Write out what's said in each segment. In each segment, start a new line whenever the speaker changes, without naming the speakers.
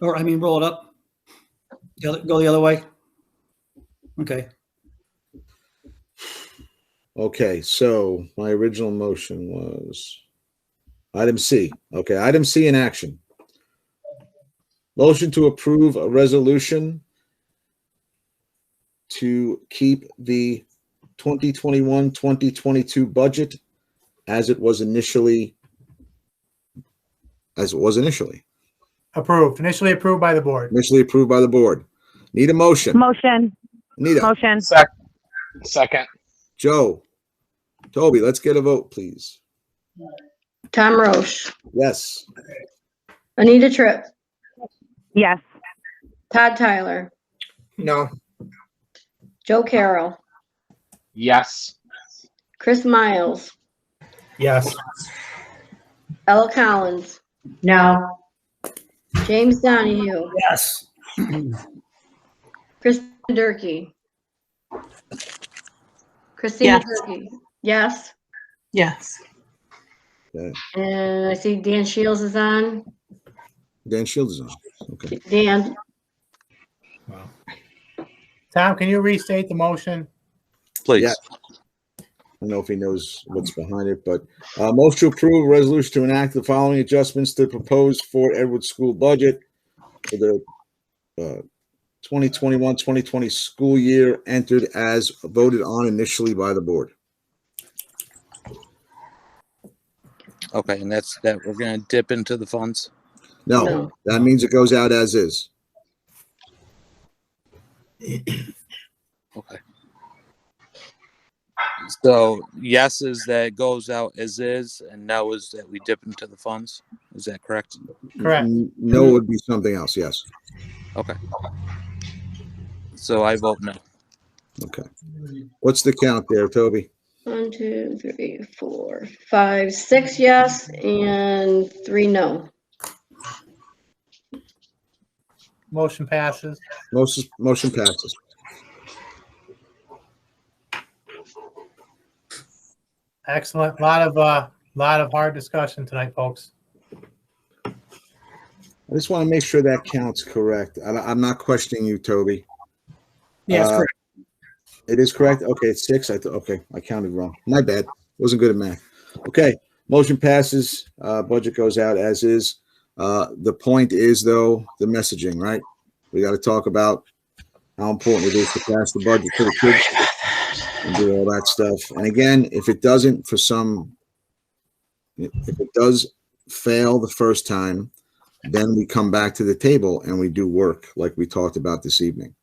Or, I mean, roll it up. The other- Go the other way. Okay,
Okay, so my original motion was item C. Okay, item C in action. Motion to approve a resolution to keep the 2021, 2022 budget as it was initially, as it was initially,
Approved, initially approved by the board.
initially approved by the board. Need a motion?
Motion,
Anita,
motion,
Sec- second,
Joe, Toby, let's get a vote, please.
Tom Roche,
Yes.
Anita Tripp,
yes.
Todd Tyler,
No.
Joe Carroll,
yes.
Chris Miles,
Yes.
Ella Collins. No. James Donahue,
yes.
Kristen Durkey. Christina
Yes.
Durkey, yes.
Yes.
And I see Dan Shields is on.
Dan Shields is on. Okay.
Dan,
Tom, can you restate the motion?
Yeah.
please.
I don't know if he knows what's behind it, but uh, most to approve a resolution to enact the following adjustments to the proposed Fort Edward school budget for the uh, 2021 2020 school year entered as voted on initially by the board.
Okay, and that's that we're gonna dip into the funds.
No,
No.
that means it goes out as is.
Okay. So yes is that goes out as is and no is that we dip into the funds. Is that correct?
Correct.
N- No would be something else. Yes.
So I vote no.
Okay. What's the count there, Toby?
one, two, three, four, five, six yes, and three no.
Motion passes.
Motion, motion passes.
Excellent. Lot of, uh, lot of hard discussion tonight, folks.
I just want to make sure that count's correct. I, I'm not questioning you, Toby.
Yes,
Uh,
correct.
It is correct. Okay, it's six. I th- okay, I counted wrong. My bad. Wasn't good at math. Okay, motion passes. Uh, budget goes out as is. Uh, the point is though the messaging, right? We got to talk about how important it is to pass the budget to the kids and do all that stuff. And again, if it doesn't for some, if it does fail the first time, then we come back to the table and we do work like we talked about this evening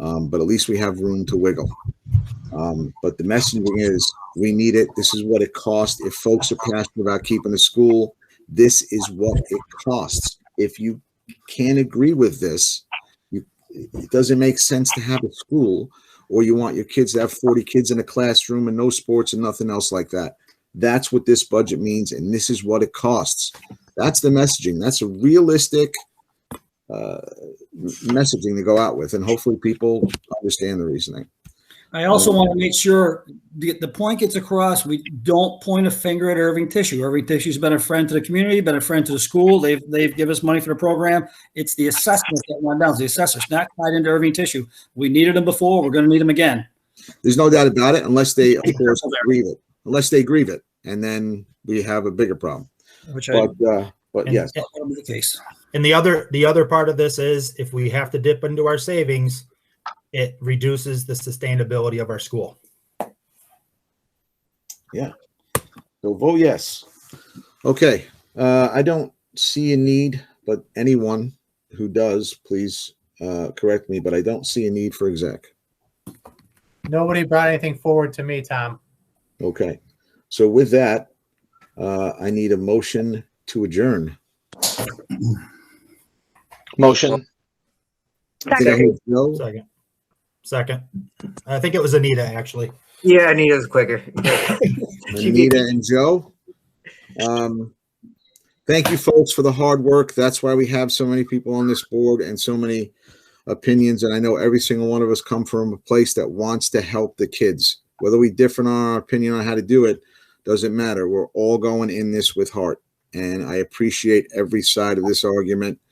um, but at least we have room to wiggle. Um, but the messaging is we need it. This is what it costs. If folks are passionate about keeping the school, this is what it costs. If you can't agree with this, you, it doesn't make sense to have a school or you want your kids to have 40 kids in a classroom and no sports and nothing else like that. That's what this budget means, and this is what it costs. That's the messaging. That's a realistic uh, messaging to go out with, and hopefully people understand the reasoning.
I also want to make sure the, the point gets across. We don't point a finger at Irving Tissue. Irving Tissue's been a friend to the community, been a friend to the school. They've, they've given us money for the program. It's the assessment that went down, It's the assessors, not tied into Irving Tissue. We needed them before, we're going to need them again.
There's no doubt about it, unless they of course grieve it, unless they grieve it, and then we have a bigger problem.
Which I,
But uh, but
And-
yes,
that'll be the case.
And the other, the other part of this is if we have to dip into our savings, it reduces the sustainability of our school.
so vote yes. Okay, uh, I don't see a need, but anyone who does, please uh, correct me. But I don't see a need for exec.
Nobody brought anything forward to me, Tom.
Okay, so with that, uh, I need a motion to adjourn.
Motion,
I think I
Second,
heard Joe.
Second. Second. I think it was Anita, actually.
Yeah, Anita's quicker.
Anita and Joe. Um, thank you, folks, for the hard work. That's why we have so many people on this board and so many opinions. And I know every single one of us come from a place that wants to help the kids. Whether we differ on our opinion on how to do it, doesn't matter. We're all going in this with heart. And I appreciate every side of this argument.